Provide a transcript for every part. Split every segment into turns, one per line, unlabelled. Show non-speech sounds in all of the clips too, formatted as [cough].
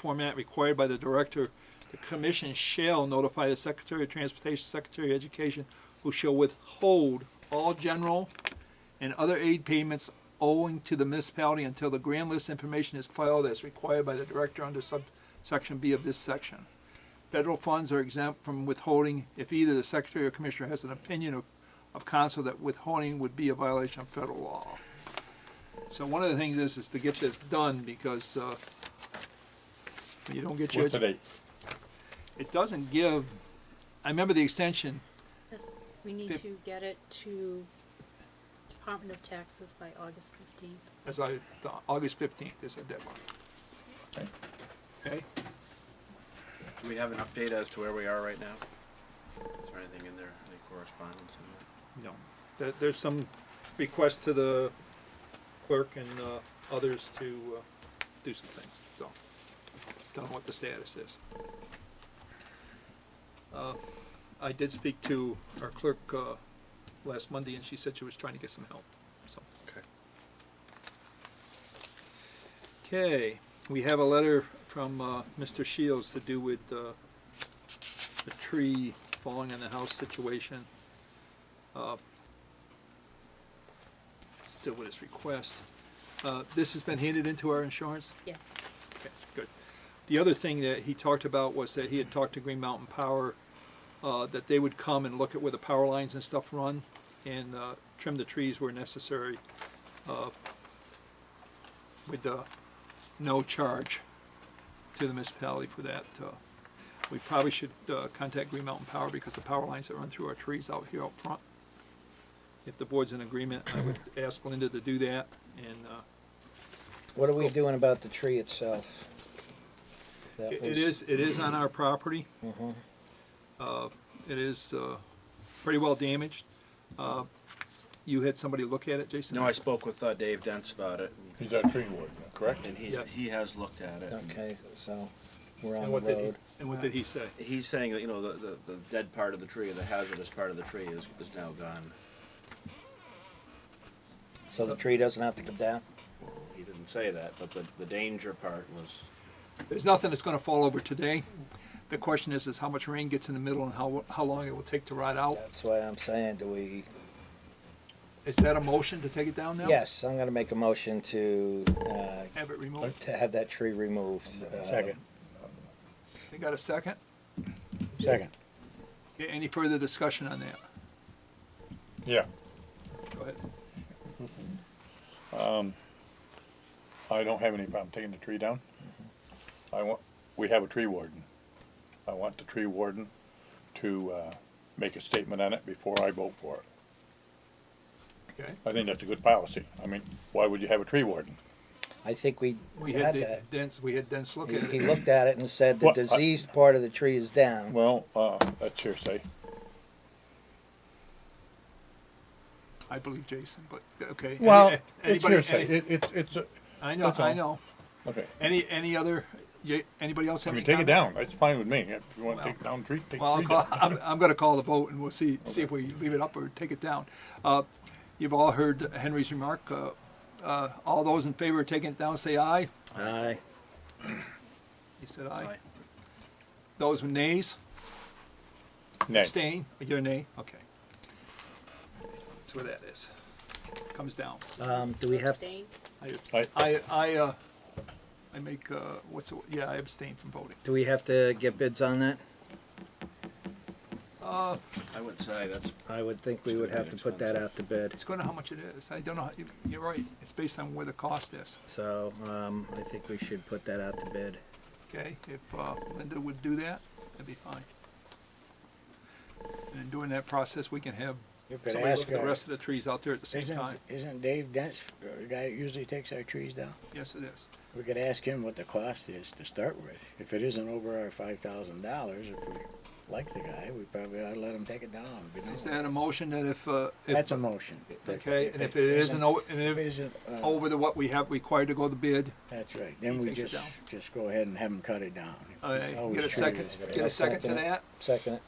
format required by the director, the commission shall notify the Secretary of Transportation, Secretary of Education, who shall withhold all general and other aid payments owing to the municipality until the grand list information is filed as required by the director under subsection B of this section. Federal funds are exempt from withholding if either the secretary or commissioner has an opinion of, of council that withholding would be a violation of federal law. So one of the things is, is to get this done because, uh, you don't get your,
What's the date?
it doesn't give, I remember the extension,
Yes, we need
Fif-
to get it to Department of Taxes by August fifteenth.
as I thought, August fifteenth is our deadline.
Okay.
Okay,
Do we have an update as to where we are right now? Is there anything in there, any correspondence in there?
no, there, there's some requests to the clerk and, uh, others to, uh, do some things, so. Don't know what the status is. Uh, I did speak to our clerk, uh, last Monday and she said she was trying to get some help, so.
Okay.
Okay, we have a letter from uh, Mr. Shields to do with uh, the tree falling on the house situation. Uh, Still with his request. Uh, This has been handed into our insurance?
Yes,
Okay, good. The other thing that he talked about was that he had talked to Green Mountain Power, uh, that they would come and look at where the power lines and stuff run and, uh, trim the trees where necessary, uh, with, uh, no charge to the municipality for that. uh, We probably should, uh, contact Green Mountain Power because the power lines that run through our trees out here out front. If the board's in agreement, I would ask Linda to do that and, uh,
What are we doing about the tree itself? That
It
was-
it is, it is on our property.
Mhm.
Uh, It is uh, pretty well damaged. Uh, You had somebody look at it, Jason?
No, I spoke with uh, Dave Dents about it,
He's our tree warden, correct?
and he's,
Yeah.
he has looked at it. and
Okay, so we're
And
on the
what did he,
road.
and what did he say?
He's saying that, you know, the, the, the dead part of the tree, the hazardous part of the tree is, is now gone.
So the tree doesn't have to come down?
He didn't say that, but the, the danger part was,
There's nothing that's gonna fall over today. The question is, is how much rain gets in the middle and how, how long it will take to rot out?
That's why I'm saying, do we,
Is that a motion to take it down now?
yes, I'm gonna make a motion to, uh,
Have it removed?
to have that tree removed. uh,
Second.
You got a second?
Second.
Okay, Any further discussion on that?
Yeah,
Go ahead.
I don't have any problem taking the tree down. I want, we have a tree warden. I want the tree warden to, uh, make a statement on it before I vote for it.
Okay.
I think that's a good policy. I mean, why would you have a tree warden?
I think we
We had
had that.
Dens, we had Dens look
He
at
he
it.
looked at it and said the
Well, I-
diseased part of the tree is down.
Well, uh, that's [laughs] hearsay.
I believe Jason, but, okay. Any-
It's
[laughs] anybody-
hearsay.
any-
It, it's, it's, a-
I know,
that's all.
I know.
okay.
Any, any other, y- anybody else
I
have any
mean, take it
comment?
down. That's fine with me. If you wanna
Well-
take down tree, take
Well, I'll
tree
call,
[laughs] down.
I'm, I'm gonna call the vote and we'll see, see if we leave it up or take it down. Uh, you've all heard Henry's remark, uh, uh, all those in favor of taking it down, say aye.
Aye.
He said aye.
I,
Those with nays,
Nay.
abstain, you're a nay, okay. That's where that is, comes down.
Um, do we have,
abstain.
I, abst-
I-
I, I, uh, I make, uh, what's, the- yeah, I abstain from voting.
do we have to get bids on that?
I would say that's,
I would think we would have to put that out to bid.
It's gonna how much it is, I don't know, how- you- you're right, it's based on where the cost is.
So, um, I think we should put that out to bid.
Okay, if uh, Linda would do that, that'd be fine. And in doing that process, we can have
You could
somebody look
ask,
at the
uh,
rest of the trees out there at the same time.
isn't, isn't Dave Dent's the guy that usually takes our trees down?
Yes, it is.
We could ask him what the cost is to start with. If it isn't over our five thousand dollers, if we like the guy, we probably ought to let him take it down. and be done
Is
with it.
that a motion that if, uh, if,
That's a motion.
okay, and if it isn't, o- and
If
if
it
it's
isn't, uh,
over the what we have required to go to bid,
that's right, then
he
we
takes it
just,
down.
just go ahead and have him cut it down.
uh,
It's always
get a
true.
second, get a second to
Second.
that?
Second it.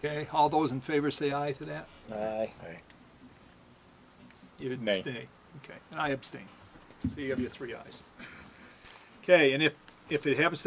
Okay, all those in favor say aye to that?
Aye.
Right.
You
Nay.
abstain. Okay, and I abstain. So you have your three ayes. Okay, and if, if it happens to